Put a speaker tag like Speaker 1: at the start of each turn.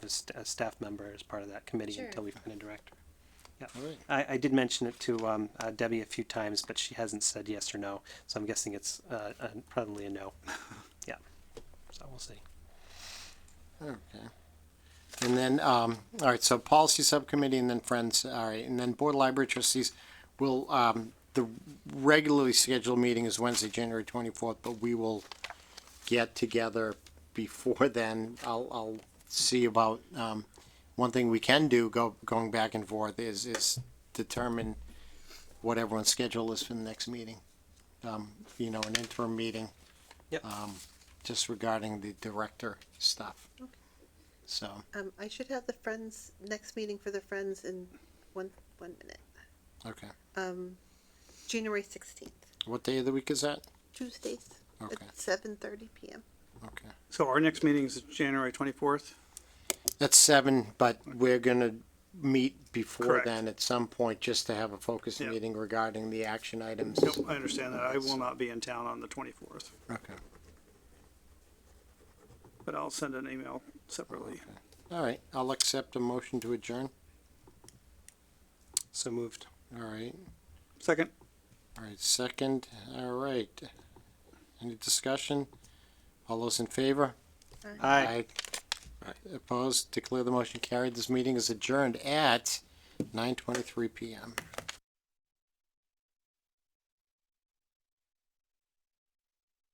Speaker 1: as st- a staff member as part of that committee
Speaker 2: Sure.
Speaker 1: until we find a director.
Speaker 3: All right.
Speaker 1: I, I did mention it to um, uh, Debbie a few times, but she hasn't said yes or no, so I'm guessing it's uh, uh, probably a no. Yeah, so we'll see.
Speaker 3: Okay. And then, um, all right, so policy subcommittee and then friends, all right, and then board of library trustees will, um, the regularly scheduled meeting is Wednesday, January twenty-fourth, but we will get together before then. I'll, I'll see about, um, one thing we can do, go, going back and forth is, is determine what everyone's schedule is for the next meeting. Um, you know, an interim meeting Um,
Speaker 1: Yep,
Speaker 3: just regarding the director stuff. So,
Speaker 2: Um, I should have the Friends, next meeting for the Friends in one, one minute.
Speaker 3: okay.
Speaker 2: Um, January sixteenth,
Speaker 3: What day of the week is that?
Speaker 2: Tuesdays,
Speaker 3: Okay.
Speaker 2: at seven thirty PM.
Speaker 3: Okay.
Speaker 4: So our next meeting is January twenty-fourth?
Speaker 3: That's seven, but we're gonna meet before
Speaker 4: Correct.
Speaker 3: then at some point, just to have a focus
Speaker 4: Yeah.
Speaker 3: meeting regarding the action items.
Speaker 4: Nope, I understand that. I will not be in town on the twenty-fourth,
Speaker 3: Okay,
Speaker 4: but I'll send an email separately.
Speaker 3: all right, I'll accept a motion to adjourn.
Speaker 1: so moved.
Speaker 3: All right,
Speaker 4: Second?
Speaker 3: all right, second, all right. Any discussion? All those in favor?
Speaker 1: Aye.
Speaker 3: Opposed? Declare the motion carried. This meeting is adjourned at nine twenty-three PM.